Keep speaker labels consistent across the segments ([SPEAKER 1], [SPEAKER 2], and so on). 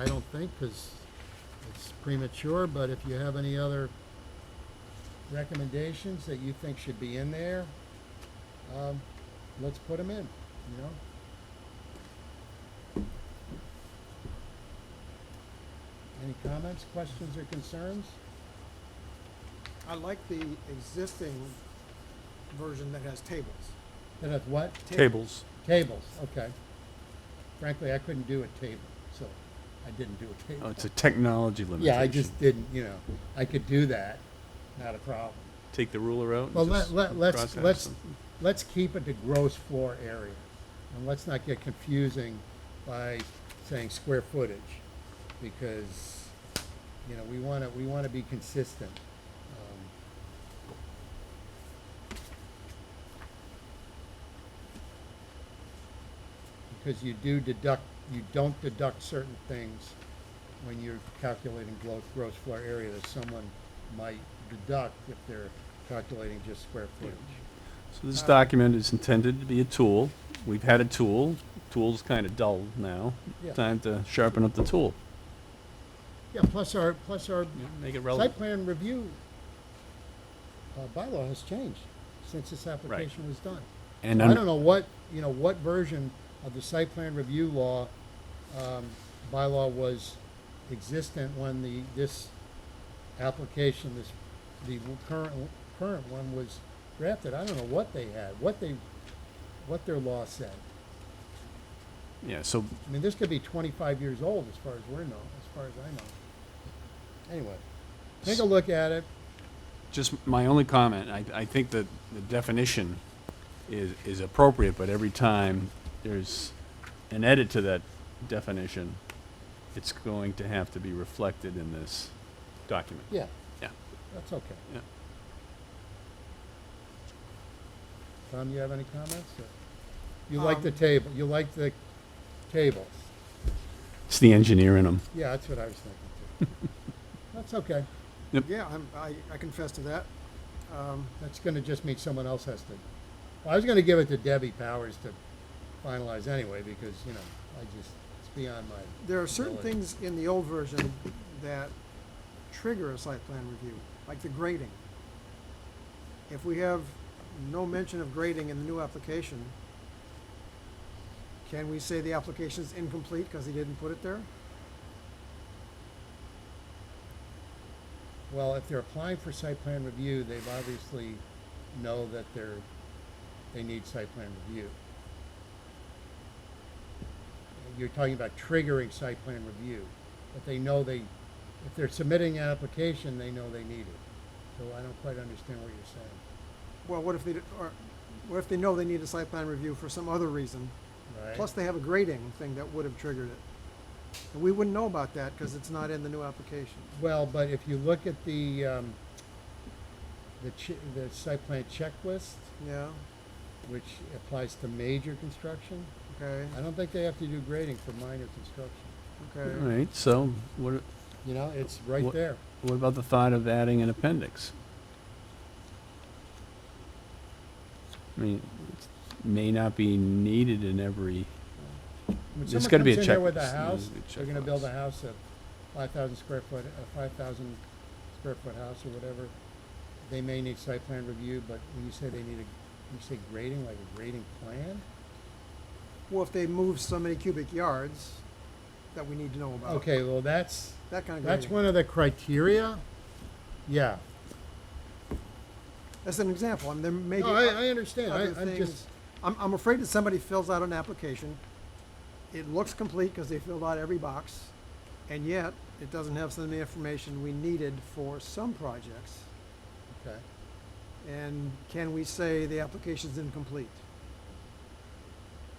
[SPEAKER 1] I don't think, because it's premature, but if you have any other recommendations that you think should be in there, um, let's put them in, you know? Any comments, questions, or concerns?
[SPEAKER 2] I like the existing version that has tables.
[SPEAKER 1] That have what?
[SPEAKER 3] Tables.
[SPEAKER 1] Tables, okay. Frankly, I couldn't do a table, so I didn't do a
[SPEAKER 3] Oh,
[SPEAKER 1] table.
[SPEAKER 3] it's a technology limitation.
[SPEAKER 1] Yeah, I just didn't, you know, I could do that, not a problem.
[SPEAKER 3] Take the ruler out. and
[SPEAKER 1] Well, let,
[SPEAKER 3] just
[SPEAKER 1] let, let's,
[SPEAKER 3] cross out
[SPEAKER 1] let's, uh,
[SPEAKER 3] some.
[SPEAKER 1] let's keep it to gross floor area. And let's not get confusing by saying square footage, because, you know, we wanna, we wanna be consistent. Um, Because you do deduct, you don't deduct certain things when you're calculating glo- gross floor area that someone might deduct if they're calculating just square footage.
[SPEAKER 3] So this document is intended to be a tool. We've had a tool. Tool's kind of dull now.
[SPEAKER 1] Yeah.
[SPEAKER 3] Time to sharpen up the tool.
[SPEAKER 1] Yeah, plus our, plus our
[SPEAKER 3] Make it
[SPEAKER 1] site
[SPEAKER 3] relevant.
[SPEAKER 1] plan review uh, bylaw has changed since this application was done.
[SPEAKER 3] And
[SPEAKER 1] I
[SPEAKER 3] un-
[SPEAKER 1] don't know what, you know, what version of the site plan review law, um, bylaw was existent when the, this application, this, the current, current one was drafted. I don't know what they had, what they, what their law said.
[SPEAKER 3] Yeah, so
[SPEAKER 1] I mean, this could be twenty-five years old as far as we're know, as far as I know. Anyway, take a look at it.
[SPEAKER 3] just my only comment, I, I think that the definition is, is appropriate, but every time there's an edit to that definition, it's going to have to be reflected in this document.
[SPEAKER 1] Yeah,
[SPEAKER 3] Yeah.
[SPEAKER 1] that's okay.
[SPEAKER 3] Yeah.
[SPEAKER 1] Tom, you have any comments? or- You
[SPEAKER 2] Um,
[SPEAKER 1] like the table, you like the tables.
[SPEAKER 3] It's the engineer in them.
[SPEAKER 1] Yeah, that's what I was thinking too. That's okay.
[SPEAKER 2] Yeah, I'm, I, I confess to that. Um,
[SPEAKER 1] That's gonna just mean someone else has to. Well, I was gonna give it to Debbie Powers to finalize anyway, because, you know, I just, it's beyond my.
[SPEAKER 2] there are certain
[SPEAKER 1] ability.
[SPEAKER 2] things in the old version that trigger a site plan review, like the grading. If we have no mention of grading in the new application, can we say the application's incomplete because he didn't put it there?
[SPEAKER 1] Well, if they're applying for site plan review, they've obviously know that they're, they need site plan review. You're talking about triggering site plan review, but they know they, if they're submitting an application, they know they need it. So I don't quite understand what you're saying,
[SPEAKER 2] Well, what if they, d- or, what if they know they need a site plan review for some other reason?
[SPEAKER 1] right?
[SPEAKER 2] Plus, they have a grading thing that would have triggered it. And we wouldn't know about that because it's not in the new application.
[SPEAKER 1] Well, but if you look at the, um, the chi- the site plan checklist,
[SPEAKER 2] Yeah,
[SPEAKER 1] which applies to major construction,
[SPEAKER 2] okay,
[SPEAKER 1] I don't think they have to do grading for minor construction.
[SPEAKER 3] All
[SPEAKER 2] okay.
[SPEAKER 3] right, so what,
[SPEAKER 1] You know, it's right
[SPEAKER 3] What-
[SPEAKER 1] there.
[SPEAKER 3] what about the thought of adding an appendix? I mean, it may not be needed in every,
[SPEAKER 1] When
[SPEAKER 3] There's
[SPEAKER 1] someone
[SPEAKER 3] gotta be
[SPEAKER 1] comes
[SPEAKER 3] a
[SPEAKER 1] in there with
[SPEAKER 3] checklist.
[SPEAKER 1] a
[SPEAKER 3] There's gotta
[SPEAKER 1] house,
[SPEAKER 3] be a
[SPEAKER 1] they're gonna build a
[SPEAKER 3] checklist.
[SPEAKER 1] house of five thousand square foot, a five thousand square foot house or whatever. They may need site plan review, but when you say they need a, you say grading, like a grading plan?
[SPEAKER 2] Well, if they move so many cubic yards that we need to know about.
[SPEAKER 1] Okay, well, that's,
[SPEAKER 2] That kind of grading.
[SPEAKER 1] that's one of the criteria. Yeah.
[SPEAKER 2] That's an example, I mean, there may be.
[SPEAKER 1] No, I, I understand.
[SPEAKER 2] other
[SPEAKER 1] I, I'm just,
[SPEAKER 2] things. I'm, I'm afraid that somebody fills out an application, it looks complete because they filled out every box, and yet it doesn't have some of the information we needed for some projects.
[SPEAKER 1] okay.
[SPEAKER 2] And can we say the application's incomplete?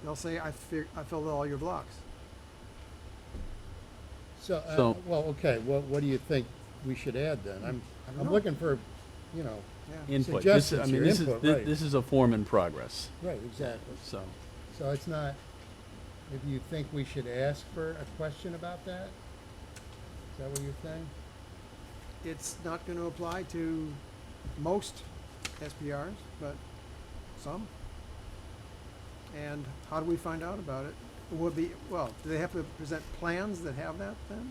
[SPEAKER 2] They'll say, I fi- I filled out all your blocks.
[SPEAKER 1] So, uh,
[SPEAKER 3] So-
[SPEAKER 1] well, okay, what, what do you think we should add then? I'm,
[SPEAKER 2] I don't
[SPEAKER 1] I'm
[SPEAKER 2] know.
[SPEAKER 1] looking for, you know,
[SPEAKER 2] Yeah,
[SPEAKER 3] input. This, is- I
[SPEAKER 1] Suggestions here,
[SPEAKER 3] mean, this is,
[SPEAKER 1] input,
[SPEAKER 3] thi-
[SPEAKER 1] right.
[SPEAKER 3] this is a form in progress,
[SPEAKER 1] right, exactly.
[SPEAKER 3] so.
[SPEAKER 1] So it's not, if you think we should ask for a question about that? Is that what you're saying?
[SPEAKER 2] it's not gonna apply to most SPRs, but some. And how do we find out about it? would be, well, do they have to present plans that have that then?